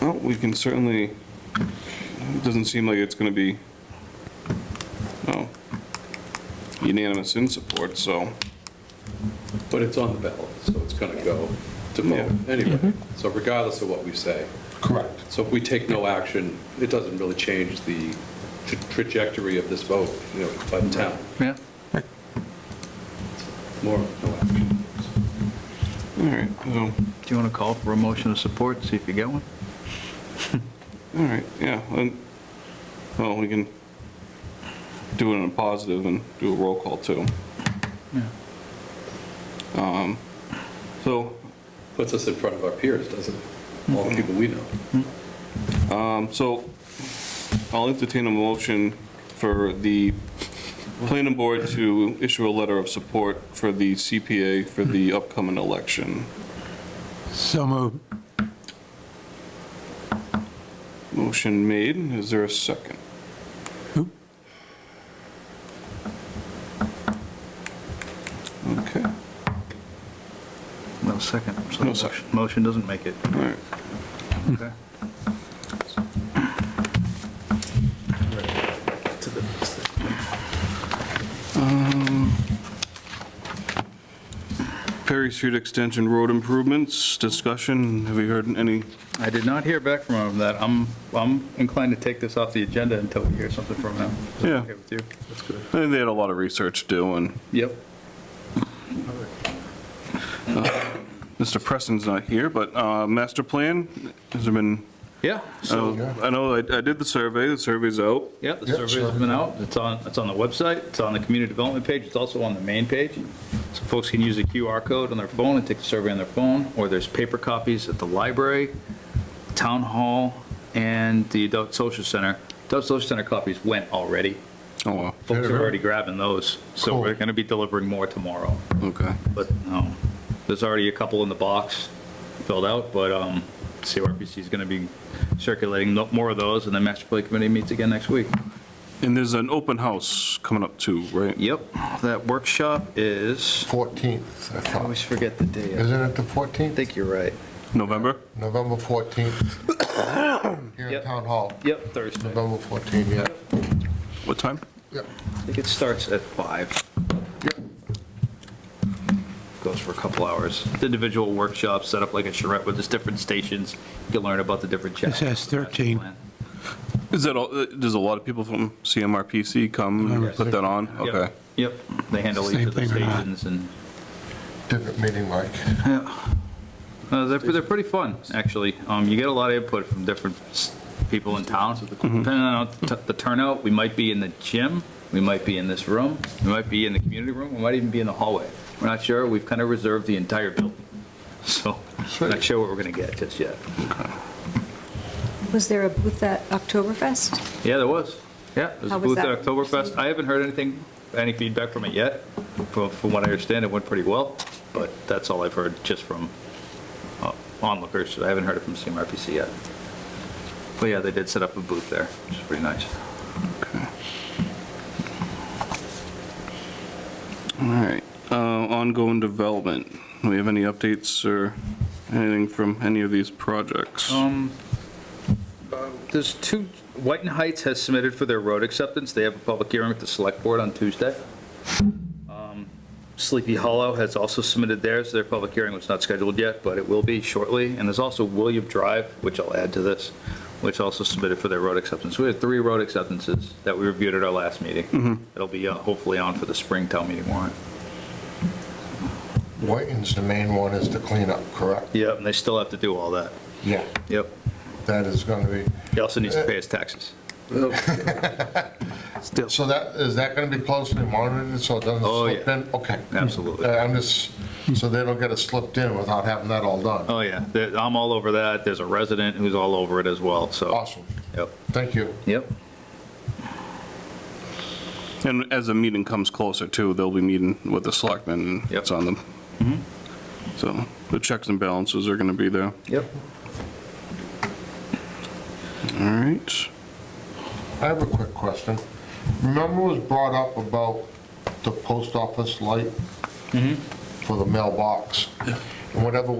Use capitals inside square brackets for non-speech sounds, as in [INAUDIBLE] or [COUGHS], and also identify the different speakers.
Speaker 1: Well, we can certainly, it doesn't seem like it's going to be, no, unanimous in support, so,
Speaker 2: But it's on the ballot, so it's going to go to
Speaker 1: Yeah.
Speaker 2: vote anyway, so regardless of what we say.
Speaker 3: Correct.
Speaker 2: So if we take no action, it doesn't really change the tra- trajectory of this vote, you know, by the town.
Speaker 4: Yeah.
Speaker 2: More, no action.
Speaker 1: all right, so,
Speaker 4: Do you want to call for a motion of support, see if you get one?
Speaker 1: all right, yeah, and, well, we can do it in a positive and do a roll call, too.
Speaker 4: Yeah.
Speaker 1: Um, So,
Speaker 2: Puts us in front of our peers, doesn't it? All the people we know.
Speaker 1: um, so I'll entertain a motion for the planning board to issue a letter of support for the CPA for the upcoming election.
Speaker 3: So moved.
Speaker 1: Motion made, is there a second?
Speaker 3: Who?
Speaker 1: Okay, all
Speaker 4: No second. so
Speaker 1: No second.
Speaker 4: motion- Motion doesn't make it.
Speaker 1: right.
Speaker 4: Okay.
Speaker 1: Perry Street Extension Road Improvements, discussion, have we heard any?
Speaker 4: I did not hear back from him on that. I'm, I'm inclined to take this off the agenda until we hear something from him. Is that
Speaker 1: Yeah.
Speaker 4: okay with you? That's good.
Speaker 1: I think they had a lot of research to do, and
Speaker 4: Yep.
Speaker 1: Mr. Preston's not here, but uh, master plan, has there been,
Speaker 4: Yeah,
Speaker 1: I know- I know, I I did the survey, the survey's out.
Speaker 4: yeah, the
Speaker 3: Yeah, sure.
Speaker 4: survey's been out. It's on, it's on the website. It's on the community development page. It's also on the main page. So folks can use the QR code on their phone and take the survey on their phone, or there's paper copies at the library, town hall, and the adult social center. Adult social center copies went already.
Speaker 1: Oh, wow,
Speaker 4: Folks are
Speaker 3: Fair.
Speaker 4: already grabbing those, so
Speaker 3: Cool.
Speaker 4: we're going to be delivering more tomorrow.
Speaker 1: okay.
Speaker 4: But um, there's already a couple in the box filled out, but um, CRPC is going to be circulating no- more of those, and the master plan committee meets again next week.
Speaker 1: And there's an open house coming up too, right?
Speaker 4: Yep, that workshop is,
Speaker 3: 14th, I
Speaker 4: I
Speaker 3: thought.
Speaker 4: always forget the day.
Speaker 3: Isn't it the
Speaker 4: I
Speaker 3: 14th?
Speaker 4: think you're right.
Speaker 1: November?
Speaker 4: [COUGHS]
Speaker 3: November 14th. Here in
Speaker 4: Yep.
Speaker 3: Town Hall,
Speaker 4: Yep, Thursday.
Speaker 3: November 14th, yeah.
Speaker 1: What time?
Speaker 4: I think it starts at 5. Goes for a couple hours. The individual workshops set up like a charrette with its different stations. You can learn about the different chapters.
Speaker 5: says
Speaker 4: of the master
Speaker 5: 13.
Speaker 4: plan.
Speaker 1: Is that all, uh, does a lot of people from CMRPC come and
Speaker 4: Yes.
Speaker 1: put that on?
Speaker 4: Yep,
Speaker 1: Okay.
Speaker 4: Yep, they handle each
Speaker 5: Same
Speaker 4: of the
Speaker 5: thing or not?
Speaker 4: stations and.
Speaker 3: Different meeting, Mike.
Speaker 4: Uh, They're, they're pretty fun, actually. Um, You get a lot of input from different s- people in town. Depending on t- the turnout, we might be in the gym, we might be in this room, we might be in the community room, we might even be in the hallway. We're not sure, we've kind of reserved the entire building, [LAUGHS] so we're not sure what we're going to get just yet.
Speaker 6: Was there a booth at Oktoberfest?
Speaker 4: Yeah, there was. Yeah, there's a
Speaker 6: How was
Speaker 4: booth at
Speaker 6: that?
Speaker 4: Oktoberfest. I haven't heard anything, any feedback from it yet. From, from what I understand, it went pretty well, but that's all I've heard just from uh, onlookers. I haven't heard it from CMRPC yet. But yeah, they did set up a booth there, which is pretty nice.
Speaker 1: All right, uh, ongoing development. Do we have any updates or anything from any of these projects?
Speaker 4: Um, uh, There's two, White and Heights has submitted for their road acceptance. They have a public hearing with the select board on Tuesday. Um, Sleepy Hollow has also submitted theirs. Their public hearing was not scheduled yet, but it will be shortly. And there's also William Drive, which I'll add to this, which also submitted for their road acceptance. We had three road acceptances that we reviewed at our last meeting. It'll be uh, hopefully on for the spring town meeting warrant.
Speaker 3: Whiting's the main one is the cleanup, correct?
Speaker 4: Yep, and they still have to do all that.
Speaker 3: Yeah.
Speaker 4: Yep.
Speaker 3: That is going to be,
Speaker 4: He also needs to pay his taxes.
Speaker 3: so that, is that going to be closely monitored so it doesn't
Speaker 4: Oh,
Speaker 3: slip
Speaker 4: yeah.
Speaker 3: in? Okay.
Speaker 4: Absolutely.
Speaker 3: Uh, I'm just, so they don't get it slipped in without having that all done.
Speaker 4: Oh, yeah, There- I'm all over that. There's a resident who's all over it as well, so.
Speaker 3: Awesome.
Speaker 4: Yep.
Speaker 3: Thank you.
Speaker 4: Yep.
Speaker 1: And as the meeting comes closer too, they'll be meeting with the selectmen and
Speaker 4: Yep. Mm-hmm.
Speaker 1: it's on them. So the checks and balances are going to be there.
Speaker 4: Yep.
Speaker 1: All right.
Speaker 3: I have a quick question. Remember was brought up about the post office light for the mailbox? And whatever